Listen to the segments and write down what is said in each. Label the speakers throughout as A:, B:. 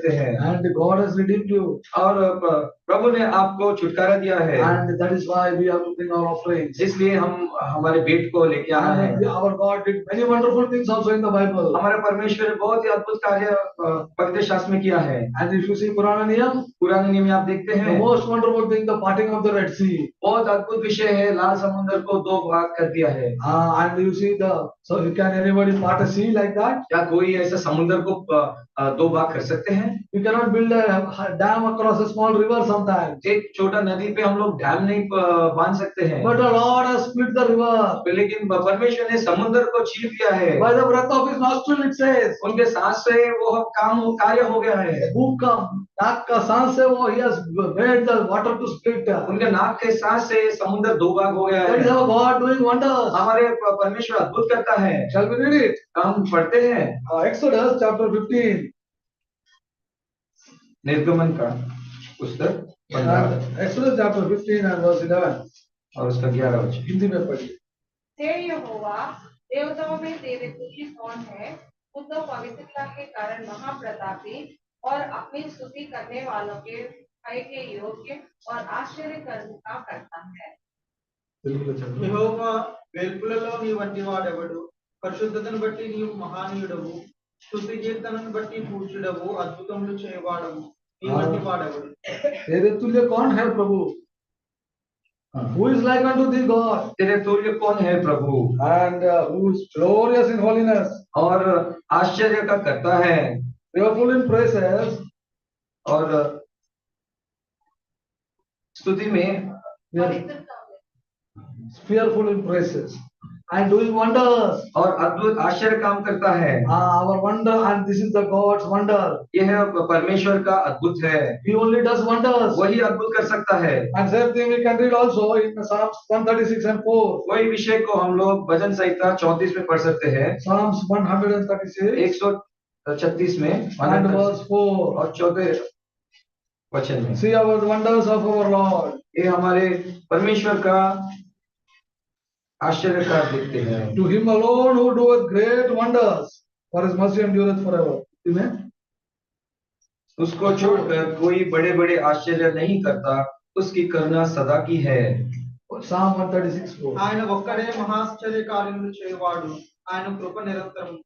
A: से है
B: and God has redeemed you.
A: हाँ, और प- प्रभु ने आपको छुटकारा दिया है
B: And that is why we are to bring our offerings.
A: इसलिए हम हमारे बेट को लेके आना है
B: And our God did many wonderful things also in the Bible.
A: हमारे परमेश्वर ने बहुत ही अद्भुत कार्य अ, पवित्र शास्त्र में किया है
B: And if you see Purana Niyam,
A: पुराने नियम में आप देखते
B: the
A: हैं
B: most wonderful thing, the parting of the Red Sea.
A: बहुत अद्भुत विषय है लाल समुद्र को दो भाग कर दिया है
B: Uh, and you see the, so you can anybody part a sea like that?
A: क्या कोई ऐसा समुद्र को अ, अ, दो भाग कर सकते हैं
B: You cannot build a dam across a small river sometimes.
A: एक छोटा नदी पे हम लोग डैम नहीं अ, बांध सकते हैं
B: But the Lord has split the river
A: लेकिन परमेश्वर ने समुद्र को छीन लिया है
B: by the breath of his nostril, it says.
A: उनके सांस से वो हम काम कार्य हो गया है
B: मुंह का नाक का सांस है वो ही has made the water to split. That
A: उनके नाक के सांस से समुद्र दो भाग हो गया
B: is
A: है
B: our God doing wonders.
A: हमारे प- परमेश्वर अद्भुत करता है
B: Shall we read it?
A: हम पढ़ते हैं
B: Uh, Exodus chapter 15.
A: निर्गमन का पुस्तक पंद्रह
B: And Uh, Exodus chapter 15 and verse 11.
A: और उसका ग्यारह वचन
B: हिंदी में पढ़िए
C: हे यहोवा देवताओं में तेरे तुल्य कौन है तू तो पवित्रता के कारण महाप्रतापी और अपनी स्तुति करने वालों के भय के योग्य और आश्चर्य कर्म का करता है
B: తెలుగులో చదవండి.
D: యెహోవా వెలుపులలో నీ వంటి వాడెవడు పరిశుద్ధతను బట్టి నీవు మహానీయుడవు స్థుతి కీర్తనను బట్టి పూజ్యుడవు అద్భుతములు చేయవాడవు నీ వంటి వాడెవడు
B: तेरे तुल्य कौन है प्रभु who is like unto the God
A: तेरे तुल्य कौन है प्रभु
B: and who is glorious in holiness
A: और आश्चर्य का करता है
B: प्रेयरफुल इन प्रेसेस
A: और स्तुति में
C: पवित्रता में
B: fearful in praises and doing wonders.
A: और अद्भुत आश्चर्य काम करता है
B: Ah, our wonder, and this is the God's wonder.
A: यह परमेश्वर का अद्भुत है
B: He only does wonders.
A: वही अद्भुत कर सकता है
B: And same thing we can read also in Psalms 136 and 4.
A: वही विषय को हम लोग भजन संहिता चौतीस में पढ़ सकते हैं
B: Psalms 136
A: एक सौ छत्तीस में
B: and verse 4.
A: और चौथे वचन में
B: See our wonders of our Lord.
A: ये हमारे परमेश्वर का आश्चर्य का देखते हैं
B: To him alone who doeth great wonders, for his mercy endureth forever. Amen.
A: उसको छोड़कर कोई बड़े बड़े आश्चर्य नहीं करता उसकी करुणा सदा की है
B: Psalm 136 4.
D: ఆయన ఒక్కడే మహాశ్చర్య కార్యములు చేయవాడు ఆయన కృప నిరంతరం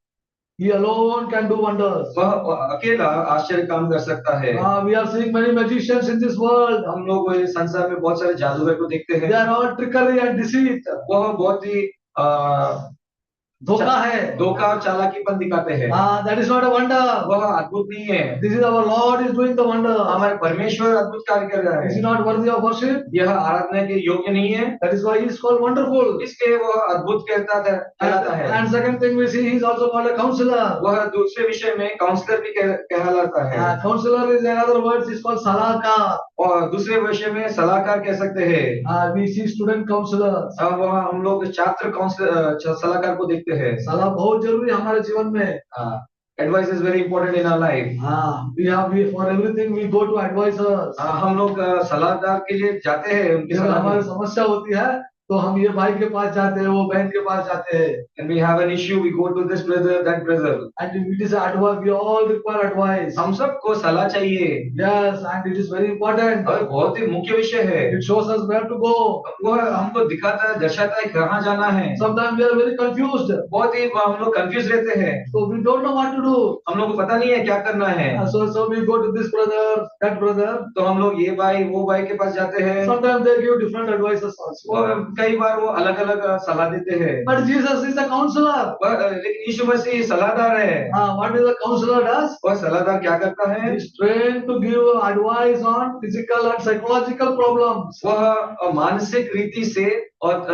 B: He alone can do wonders.
A: वह अकेला आश्चर्य काम कर सकता है
B: Ah, we are seeing many magicians in this world.
A: हम लोग इस संसार में बहुत सारे जादूगर को देखते
B: They
A: हैं
B: are all trickery and deceit.
A: वह बहुत ही अ,
B: धोखा है
A: धोखा और चालाकीपन दिखाते हैं
B: Ah, that is not a wonder.
A: वह अद्भुत नहीं है
B: This is our Lord is doing the wonder.
A: हमारे परमेश्वर अद्भुत कार्य कर रहा
B: Is he
A: है
B: not worthy of worship?
A: यह आराधना के योग्य नहीं है
B: That is why he is called wonderful.
A: इसलिए वह अद्भुत कहता था-
B: And,
A: कहलाता है
B: and second thing we see, he is also called a counselor.
A: वह दूसरे विषय में काउंसलर भी कह- कहलाता है
B: Uh, counselor is another word, is called salaka.
A: और दूसरे विषय में सलाहकार कह सकते हैं
B: Uh, we see student counselors.
A: अब वहाँ हम लोग छात्र काउंसलर सलाहकार को देखते हैं
B: सलाह बहुत जरूरी है हमारे जीवन में.
A: Advice is very important in our life
B: Uh, we have, we, for everything we go to advisors.
A: हम लोग अ, सलाहकार के लिए जाते हैं उनकी
B: जब
A: सलाह
B: हमारी समस्या होती है तो हम ये भाई के पास जाते हैं वो बहन के पास जाते हैं
A: and we have an issue we go to this brother that brother
B: And it is advice, we all require advice.
A: हम सबको सलाह चाहिए
B: Yes, and it is very important.
A: और बहुत ही मुख्य विषय है
B: It shows us where to go.
A: वह हमको दिखाता है दर्शाता है कहाँ जाना है
B: Sometimes we are very confused.
A: बहुत ही हम लोग कंफ्यूज रहते हैं
B: So we don't know what to do.
A: हम लोग को पता नहीं है क्या करना है
B: And So, so we go to this brother, that brother.
A: तो हम लोग ये भाई वो भाई के पास जाते हैं
B: Sometimes they give different advices
A: वो
B: also.
A: कई बार वो अलग अलग सलाह देते हैं
B: But Jesus is a counselor.
A: पर, अ, लेकिन यीशु मसीह सलाहदार है
B: Uh, what is the counselor does?
A: वह सलाहदार क्या करता है
B: He is trained to give advice on physical and psychological problems.
A: वह अ, मानसिक रीति से और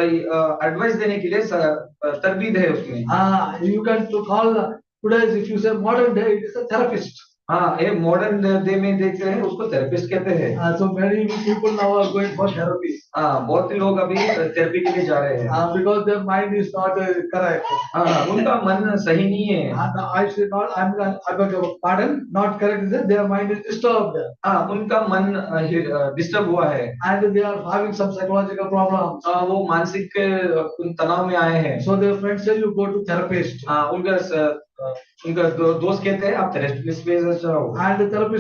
A: एडवाइस देने के लिए स- अ, तरबीद है उसमें
B: Ah, you can to call today's, if you say modern day, it is a therapist.
A: हाँ ये मॉडर्न डे में देखते हैं उसको थेरेपिस्ट कहते हैं
B: Ah, so many people now are going for therapy.
A: हाँ बहुत ही लोग अभी थेरेपी के लिए जा रहे हैं
B: Uh, because their mind is not uh, correct.
A: हाँ उनका मन सही नहीं है
B: And I should not, I'm, not- I beg your pardon, not correct, is that their mind is disturbed
A: हाँ उनका मन डिस्टर्ब हुआ है
B: and they are having some psychological problems.
A: हाँ, वो मानसिक अ, उन तनाव में आए हैं
B: So their friends say you go to therapist. Uh,
A: हाँ उनका स-
E: ఇంకా దో- దోస్ कहते हैं आप थेरेपी में जाओ
A: And the therapist